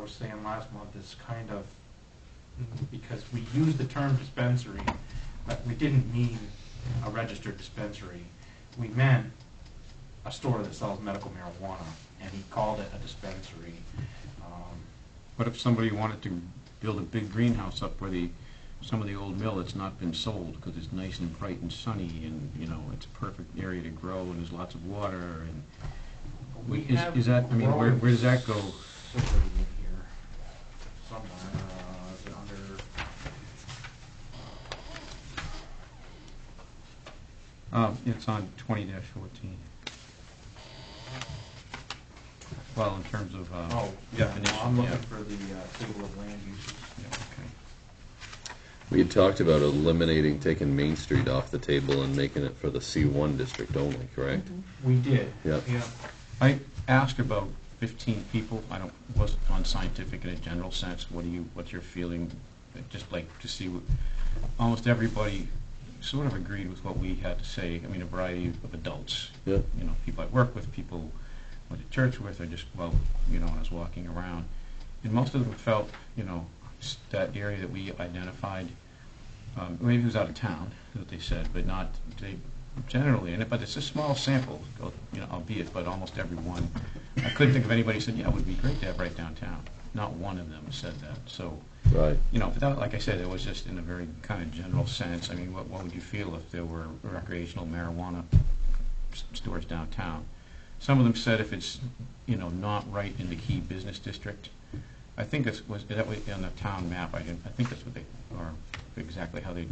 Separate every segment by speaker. Speaker 1: was saying last month, is kind of, because we use the term dispensary, but we didn't mean a registered dispensary. We meant a store that sells medical marijuana, and he called it a dispensary. Um,
Speaker 2: What if somebody wanted to build a big greenhouse up where the, some of the old mill that's not been sold, because it's nice and bright and sunny, and, you know, it's a perfect area to grow, and there's lots of water, and,
Speaker 1: We
Speaker 2: Is-
Speaker 1: have
Speaker 2: is that- I mean, where- where does that go?
Speaker 1: growing facility in here Somewhere, uh, is it under,
Speaker 2: uh, it's on twenty fourteen. Well, in terms of, uh,
Speaker 1: oh, yeah,
Speaker 2: definition,
Speaker 1: no, I'm looking
Speaker 2: yeah.
Speaker 1: for the uh, table of land uses.
Speaker 2: Yeah, okay.
Speaker 3: We had talked about eliminating, taking Main Street off the table and making it for the C1 district only, correct?
Speaker 1: We did.
Speaker 3: Yep.
Speaker 2: I asked about 15 people, I don't, was on scientific in a general sense, what do you, what's your feeling? I'd Just like to see, what almost everybody sort of agreed with what we had to say, I mean, a variety of adults.
Speaker 3: Yeah.
Speaker 2: You know, people I work with, people I went to church with, or just, well, you know, when I was walking around. And most of them felt, you know, s- that area that we identified, um, maybe it was out of town, that they said, but not, they generally, and it, but it's a small sample, al- you know, albeit, but almost everyone. I couldn't think of anybody who said, yeah, it would be great to have right downtown. Not one of them said that, so,
Speaker 3: Right.
Speaker 2: you know, but that, like I said, it was just in a very kind of general sense. I mean, what, what would you feel if there were recreational marijuana s- stores downtown? Some of them said if it's, you know, not right in the key business district. I think that's, was, that was on the town map, I didn't, I think that's what they, or exactly how they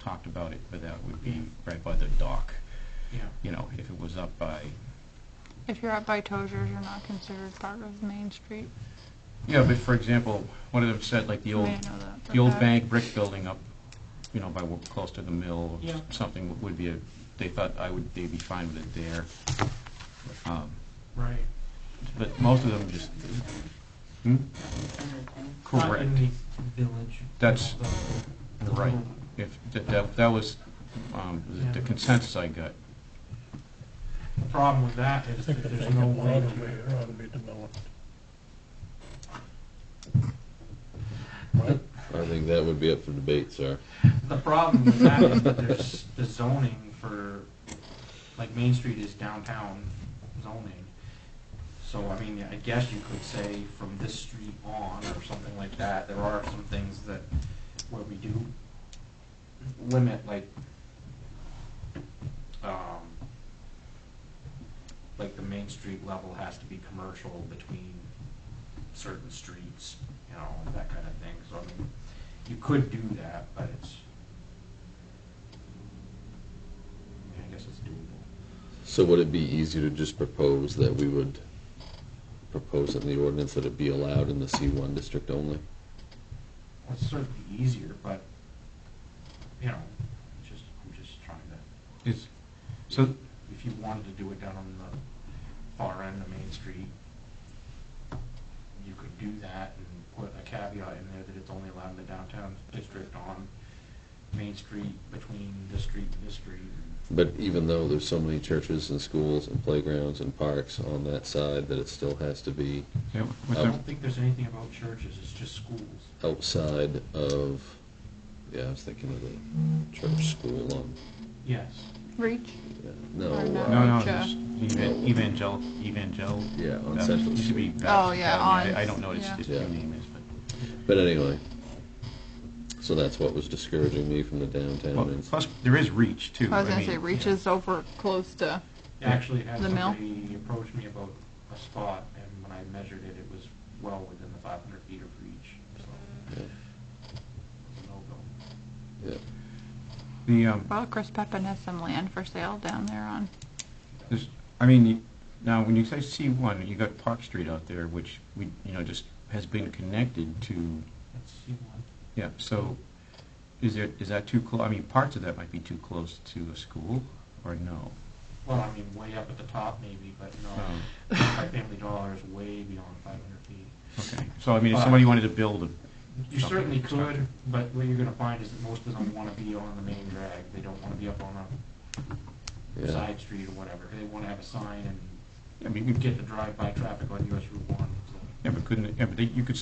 Speaker 2: talked about it, but that would be right by the dock.
Speaker 1: Yeah,
Speaker 2: You know, if it was up by,
Speaker 4: If you're up by Tozer's, you're not considered part of Main Street.
Speaker 2: yeah, but for example, one of them said like the
Speaker 4: You
Speaker 2: old
Speaker 4: may know that, but
Speaker 2: The old
Speaker 4: that-
Speaker 2: bank brick building up, you know, by, wo- close to the mill,
Speaker 1: Yeah.
Speaker 2: something would be a, they thought I would, they'd be fine with it there. Um,
Speaker 1: right.
Speaker 2: But most of them just, hmm?
Speaker 1: Not
Speaker 2: Correct.
Speaker 1: in the village.
Speaker 2: That's-
Speaker 1: you know, the-
Speaker 2: Right. If, that- that, that was, um, the- the
Speaker 1: Yeah.
Speaker 2: consensus I got.
Speaker 1: The problem with that is
Speaker 5: think
Speaker 1: that
Speaker 5: the
Speaker 1: there's
Speaker 5: vacant
Speaker 1: no
Speaker 5: lot
Speaker 1: way
Speaker 5: over
Speaker 1: to,
Speaker 5: there ought to be developed.
Speaker 3: I think that would be up for debate, sir.
Speaker 1: the problem with that is that there's the zoning for, like, Main Street is downtown zoning. So, I mean, I guess you could say from this street on or something like that, there are some things that, where we do limit, like, um, like the Main Street level has to be commercial between certain streets, you know, and that kind of thing. So, I mean, you could do that, but it's, I mean, I guess it's doable.
Speaker 3: So would it be easy to just propose that we would propose in the ordinance that it be allowed in the C1 district only?
Speaker 1: It's certainly easier, but, you know, it's just, I'm just trying to,
Speaker 2: Is, so,
Speaker 1: if you wanted to do it down on the far end of Main Street, you could do that and put a caveat in there that it's only allowed in the downtown district on Main Street, between this street and this street.
Speaker 3: But even though there's so many churches and schools and playgrounds and parks on that side, that it still has to be
Speaker 2: yeah, what's
Speaker 1: I
Speaker 2: that?
Speaker 1: don't think there's anything about churches, it's just schools.
Speaker 3: outside of, yeah, I was thinking of the church school on,
Speaker 1: Yes.
Speaker 4: Reach.
Speaker 3: yeah, no.
Speaker 4: Or no.
Speaker 3: uh,
Speaker 2: No, no,
Speaker 4: Like, uh,
Speaker 2: just evan- evangel, evangel.
Speaker 3: Yeah, on
Speaker 2: uh,
Speaker 3: Central
Speaker 2: used to be
Speaker 3: Street.
Speaker 2: Baptist
Speaker 4: Oh, yeah,
Speaker 2: Academy.
Speaker 4: on-
Speaker 2: I I don't know what its,
Speaker 4: yeah.
Speaker 2: its
Speaker 3: Yeah.
Speaker 2: new name is, but.
Speaker 3: But anyway, so that's what was discouraging me from the
Speaker 2: Well,
Speaker 3: downtown.
Speaker 2: Plus, there is reach too.
Speaker 4: I was gonna
Speaker 2: mean,
Speaker 4: say Reach is over close to.
Speaker 1: Actually, had
Speaker 4: The mill?
Speaker 1: somebody approach me about a spot, and when I measured it, it was well within the five hundred feet of reach, so.
Speaker 3: Yeah.
Speaker 1: it's a no-go.
Speaker 3: Yeah.
Speaker 2: The, um,
Speaker 4: Well, Chris Peppin has some land for sale down there on.
Speaker 2: There's, I mean, you- now, when you say C1, you got Park Street out there, which we, you know, just has been connected to,
Speaker 1: Let's see one.
Speaker 2: yeah, so is there, is that too close? I mean, parts of that might be too close to a school, or no?
Speaker 1: Well, I mean, way up at the top maybe, but
Speaker 2: Um,
Speaker 1: no, my family dollar is way beyond five hundred feet.
Speaker 2: Okay, so I mean, if somebody wanted to build a,
Speaker 1: You
Speaker 2: Something
Speaker 1: certainly could,
Speaker 2: constructed.
Speaker 1: but what you're gonna find is that most of them wanna be on the main drag, they don't wanna be up on a
Speaker 3: Yeah.
Speaker 1: side street or whatever, they wanna have a sign and
Speaker 2: I mean, you could
Speaker 1: get the
Speaker 2: get,
Speaker 1: drive-by traffic on US Route one, so.
Speaker 2: yeah, but couldn't, yeah, but they- you could